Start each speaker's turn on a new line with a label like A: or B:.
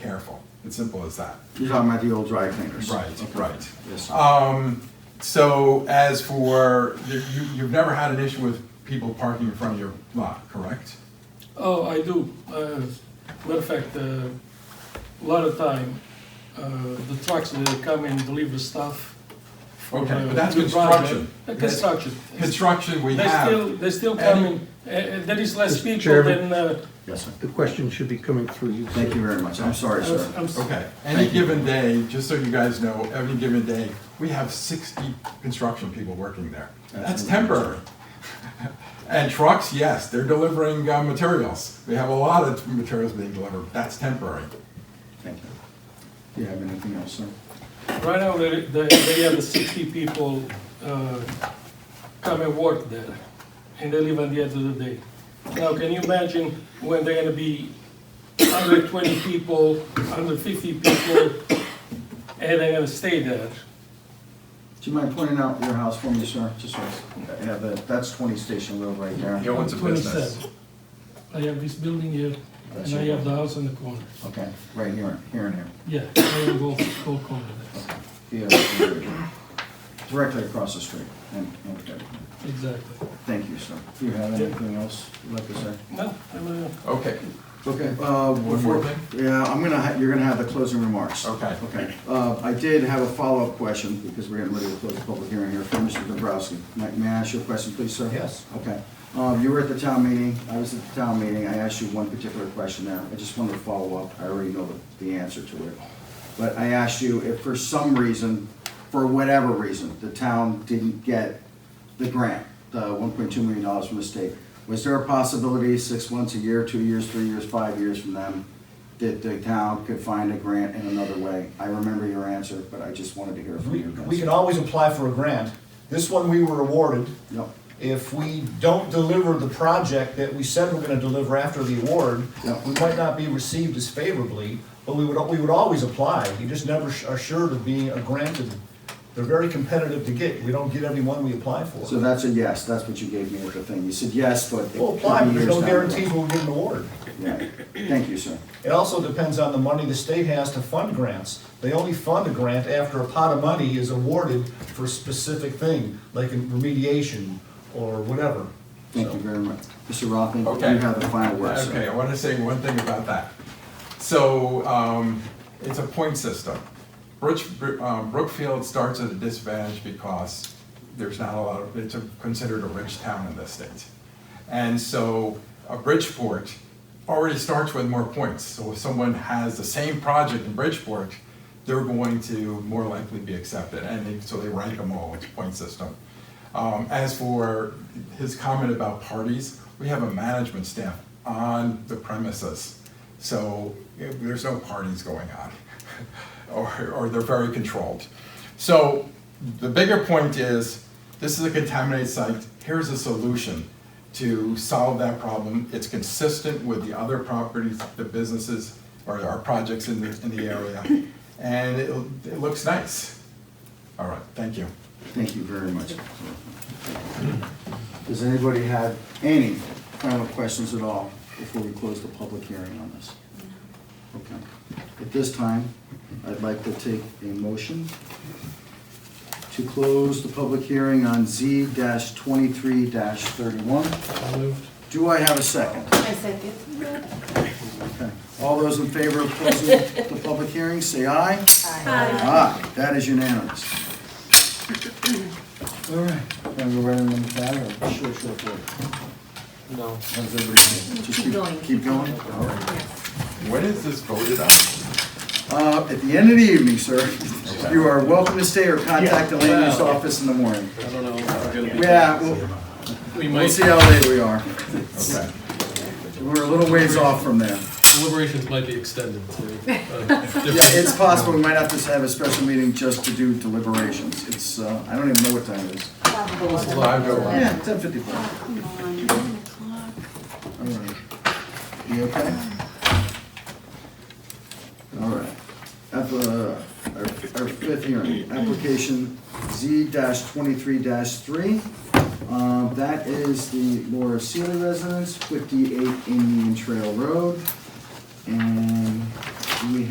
A: careful. It's simple as that.
B: You're talking about the old dry cleaners?
A: Right,
B: Okay.
A: right.
B: Yes.
A: Um, so as for, you, you've never had an issue with people parking in front of your lot, correct?
C: Oh, I do. Uh, Matter of fact, uh, a lot of time, uh, the trucks, they come and deliver stuff. from,
A: Okay,
C: uh,
A: but that's
C: the project.
A: construction.
C: Uh, Construction.
A: Construction, we
C: They still,
A: have,
C: they still
A: Any-
C: come in, Uh, uh, there is less
D: Mr.
C: people
D: Chairman.
C: than, uh,
B: Yes, sir.
D: The question should be coming through you.
B: Thank you very much. I'm sorry,
C: I'm-
B: sir.
C: uh, I'm s-
A: okay, any
B: Thank you.
A: given day, just so you guys know, every given day, we have sixty construction people working there. That's
B: That's
A: temporary. And trucks, yes, they're delivering uh, materials. We have a lot of materials being delivered. That's temporary.
B: Thank you. Do you have anything else, sir?
C: right now, they, they they have sixty people uh, come and work there, and they leave at the end of the day. Now, can you imagine when they're gonna be hundred twenty people, hundred fifty people, and they're gonna stay there?
B: Do you mind pointing out your house for me, sir? Just so I have that, that's 20 Station Road right there.
E: Your one's a business.
C: 27. I have this building here, and I have the house in the corner.
B: Okay, right here, here and here.
C: Yeah, I have both, both corners there,
B: Yeah, here. Directly across the street. And- okay.
C: exactly.
B: Thank you, sir. Do you have anything else you'd like to say?
C: No, I'm, uh,
A: Okay,
B: Okay, uh, one
A: One
B: more.
A: more thing?
B: Yeah, I'm gonna, ha- you're gonna have the closing remarks.
A: Okay.
B: Okay, uh, I did have a follow-up question, because we're getting ready to close the public hearing here, from Mr. Dobrowski. May, may I ask you a question, please, sir?
E: Yes.
B: Okay, um, you were at the town meeting, I was at the town meeting, I asked you one particular question there, I just wanted to follow up, I already know the, the answer to it. But I asked you if for some reason, for whatever reason, the town didn't get the grant, the one point two million dollars from the state, was there a possibility six months, a year, two years, three years, five years from them, that the town could find a grant in another way? I remember your answer, but I just wanted to hear from
E: We,
B: you guys.
E: we can always apply for a grant. This one we were awarded.
B: Yep.
E: If we don't deliver the project that we said we're gonna deliver after the award,
B: Yep.
E: we might not be received as favorably, but we would, we would always apply. You just never sh- are sure of being a granted. They're very competitive to get. We don't get every one we apply for.
B: So that's a yes, that's what you gave me at the thing, you said yes, but. it
E: We'll apply,
B: could be
E: but there's no
B: years down
E: guarantees we'll get an award.
B: the road. Right. Thank you, sir.
E: It also depends on the money the state has to fund grants. They only fund a grant after a pot of money is awarded for a specific thing, like in remediation or whatever.
B: Thank you very much. Mr. Rothman,
A: Okay.
B: you have the final word, sir.
A: Okay, I want to say one thing about that. So, um, it's a point system. Brook, um, Brookfield starts at a disadvantage because there's not a lot of, it's a- considered a rich town in this state. And so, a Bridgeport already starts with more points. So if someone has the same project in Bridgeport, they're going to more likely be accepted. And they- so they rank them all, it's a point system. Um, as for his comment about parties, we have a management staff on the premises. So eh, there's no parties going on, or, or they're very controlled. So the bigger point is, this is a contaminated site, here's a solution to solve that problem. It's consistent with the other properties, the businesses, or our projects in the, in the area, and it, it looks nice. All right, thank you.
B: Thank you very much. Does anybody have any final questions at all before we close the public hearing on this? Okay. At this time, I'd like to take a motion to close the public hearing on Z twenty-three thirty-one. Do I have a second?
F: I second.
B: Okay. All those in favor of closing the public hearing, say aye. Aye, that is unanimous. All right, wanna go right on the back or short, short word? No. How's everybody? Just
F: Keep going.
B: Keep going? All right.
A: When is this voted on?
B: Uh, at the end of the evening, sir, you are welcome to stay or contact the land use office in the morning.
G: I don't know if we're gonna be.
B: Yeah, we'll,
G: We
B: we'll
G: might,
B: see how late we are.
A: Okay.
B: We're a little ways off from there.
G: deliberations might be extended to. uh,
B: Yeah, it's possible we might have to have a special meeting just to do deliberations. It's, uh, I don't even know what time it is.
A: Five to one.
B: Yeah, ten fifty-four.
F: Oh, Come on, nine
B: All
F: o'clock.
B: right. You okay? All right. App- uh, Our our fifth hearing, application Z twenty-three three. Um, That is the Laura Sealy residence, fifty-eight Indian Trail Road. And we have.